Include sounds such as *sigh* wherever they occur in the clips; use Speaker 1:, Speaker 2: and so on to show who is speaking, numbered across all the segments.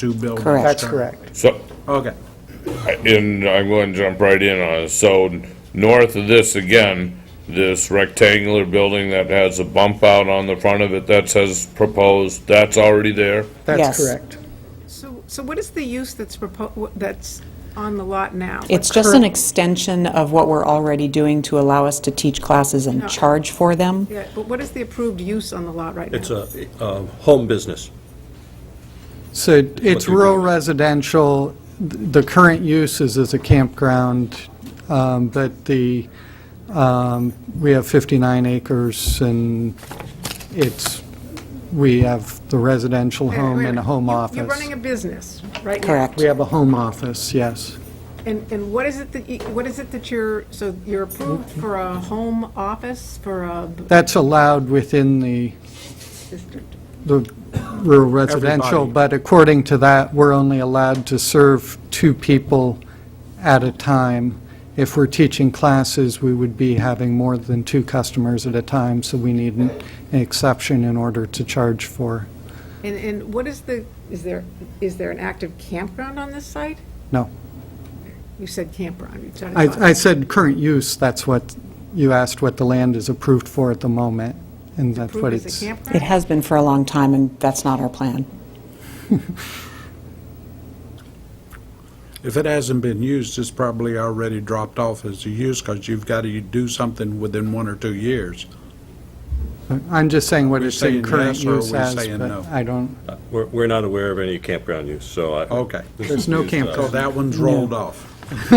Speaker 1: two buildings.
Speaker 2: Correct.
Speaker 3: That's
Speaker 1: currently.
Speaker 3: correct.
Speaker 4: So,
Speaker 1: Okay,
Speaker 4: and I'm going to jump right in on it. So north of this again, this rectangular building that has a bump out on the front of it that says proposed, that's already there?
Speaker 2: Yes.
Speaker 3: That's correct.
Speaker 5: So, so what is the use that's proposed, that's on the lot now?
Speaker 2: It's
Speaker 5: What
Speaker 2: just an
Speaker 5: current-
Speaker 2: extension of what we're already doing to allow us to teach classes and charge for them.
Speaker 5: Yeah, but what is the approved use on the lot right now?
Speaker 6: It's a um, home business.
Speaker 7: So it's
Speaker 6: you're
Speaker 7: rural
Speaker 6: doing.
Speaker 7: residential, Th- the current use is as a campground, um, but the, um, we have 59 acres, and it's, we have the residential
Speaker 5: Wait a minute,
Speaker 7: home
Speaker 5: wait
Speaker 7: and a
Speaker 5: minute.
Speaker 7: home
Speaker 5: You-
Speaker 7: office.
Speaker 5: You're running a business right now.
Speaker 2: Correct.
Speaker 7: We have a home office, yes.
Speaker 5: And, and what is it that, you- what is it that you're, so you're approved for a home office, for a b-
Speaker 7: That's allowed within the,
Speaker 5: district?
Speaker 7: the rural residential,
Speaker 1: Everybody.
Speaker 7: but according to that, we're only allowed to serve two people at a time. If we're teaching classes, we would be having more than two customers at a time, so we need an an exception in order to charge for.
Speaker 5: And, and what is the, is there, is there an active campground on this site?
Speaker 7: No.
Speaker 5: You said campground. you said-
Speaker 7: I, I said current use, that's what, you asked what the land is approved for at the moment, and that's what
Speaker 5: Approved
Speaker 7: it's.
Speaker 5: as a
Speaker 2: It
Speaker 5: campground?
Speaker 2: has been for a long time, and that's not our plan.
Speaker 1: if it hasn't been used, it's probably already dropped off as a use, because you've got to do something within one or two years.
Speaker 7: I'm just saying what
Speaker 1: we
Speaker 7: it's in
Speaker 1: saying
Speaker 7: current
Speaker 1: yes or are
Speaker 7: use
Speaker 1: we
Speaker 7: as,
Speaker 1: saying no?
Speaker 7: but I don't,
Speaker 6: We're, we're not aware of any campground use, so I.
Speaker 1: Okay.
Speaker 6: this
Speaker 7: There's
Speaker 6: is
Speaker 7: no
Speaker 6: used, uh,
Speaker 1: So
Speaker 7: campground.
Speaker 1: that one's rolled
Speaker 3: *laughs*
Speaker 1: off.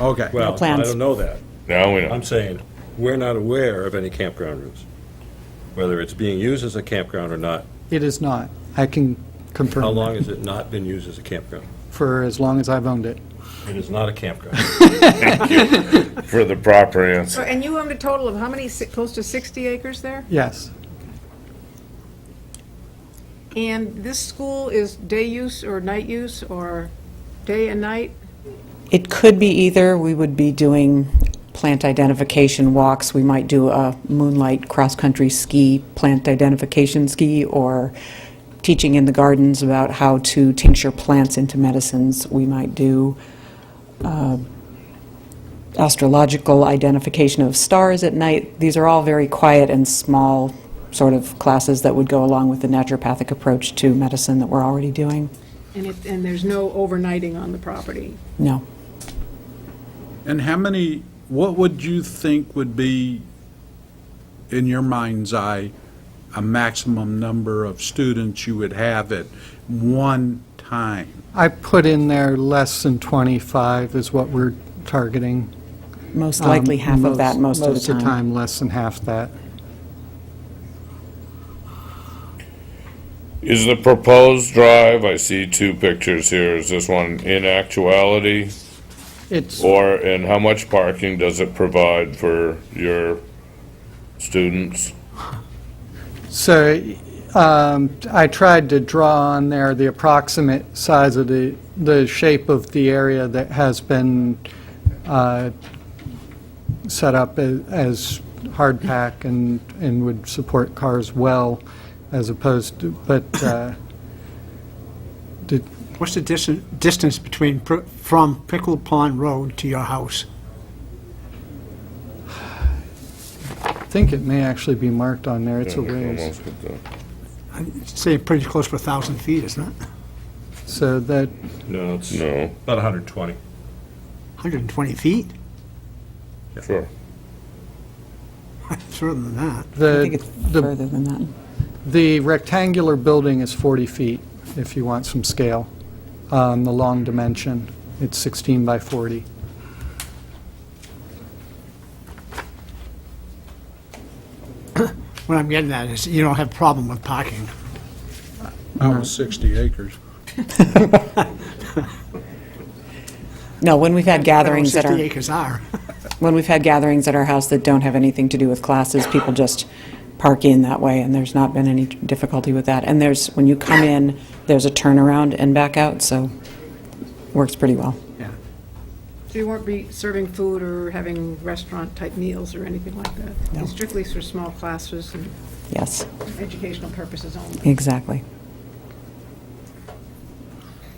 Speaker 1: Okay.
Speaker 6: Well, I
Speaker 2: plans.
Speaker 6: don't know that.
Speaker 4: Now we know.
Speaker 6: I'm saying, we're not aware of any campground use. Whether it's being used as a campground or not,
Speaker 7: it is not. I can confirm.
Speaker 6: how
Speaker 7: that.
Speaker 6: long has it not been used as a campground?
Speaker 7: for as long as I've owned it.
Speaker 6: It is not a campground.
Speaker 4: For the proper
Speaker 5: So,
Speaker 4: answer.
Speaker 5: And you owned a total of how many, si- close to 60 acres there?
Speaker 7: Yes,
Speaker 5: And this school is day use or night use, or day and night?
Speaker 2: It could be either, we would be doing plant identification walks, we might do a moonlight cross-country ski, plant identification ski, or teaching in the gardens about how to tincture plants into medicines, we might do um, astrological identification of stars at night. These are all very quiet and small sort of classes that would go along with the naturopathic approach to medicine that we're already doing.
Speaker 5: And it, and there's no overnighting on the property?
Speaker 2: No.
Speaker 1: And how many, what would you think would be, in your mind's eye, a maximum number of students you would have at one time?
Speaker 7: I put in there less than 25 is what we're targeting.
Speaker 2: Most likely
Speaker 7: Um,
Speaker 2: half of that most of the time.
Speaker 7: Most of the time, less than half that.
Speaker 4: Is the proposed drive, I see two pictures here, is this one in actuality?
Speaker 7: It's,
Speaker 4: Or, and how much parking does it provide for your students?
Speaker 7: so um, I tried to draw on there the approximate size of the, the shape of the area that has been uh, set up a- as hard pack and, and would support cars well as opposed to, but uh, did,
Speaker 3: What's the distance, distance between, pr- from Pickle Pond Road to your house?
Speaker 7: I think it may actually be marked on there, it's a
Speaker 4: Yeah,
Speaker 7: ways.
Speaker 4: almost get that.
Speaker 3: I'd say pretty close to a 1,000 feet, isn't it?
Speaker 7: So that,
Speaker 6: No, it's about
Speaker 4: No,
Speaker 6: 120.
Speaker 3: 120 feet? *laughs*
Speaker 4: sure.
Speaker 3: It's further than that.
Speaker 2: I think
Speaker 7: the,
Speaker 2: it's
Speaker 7: the
Speaker 2: further than that.
Speaker 7: the rectangular building is 40 feet, if you want some scale, on the long dimension. It's 16 by 40.
Speaker 3: What I'm getting at is you don't have problem with parking.
Speaker 1: I
Speaker 2: Mm-hmm.
Speaker 1: was 60 acres.
Speaker 2: No, when we've had gatherings that
Speaker 3: 50
Speaker 2: are,
Speaker 3: acres are.
Speaker 2: when we've had gatherings at our house that don't have anything to do with classes, people just park in that way, and there's not been any difficulty with that. And there's, when you come in, there's a turnaround and back out, so works pretty well.
Speaker 5: So you won't be serving food or having restaurant-type meals or anything like that? It's Strictly for small classes and
Speaker 2: Yes,
Speaker 5: educational purposes only?
Speaker 2: exactly.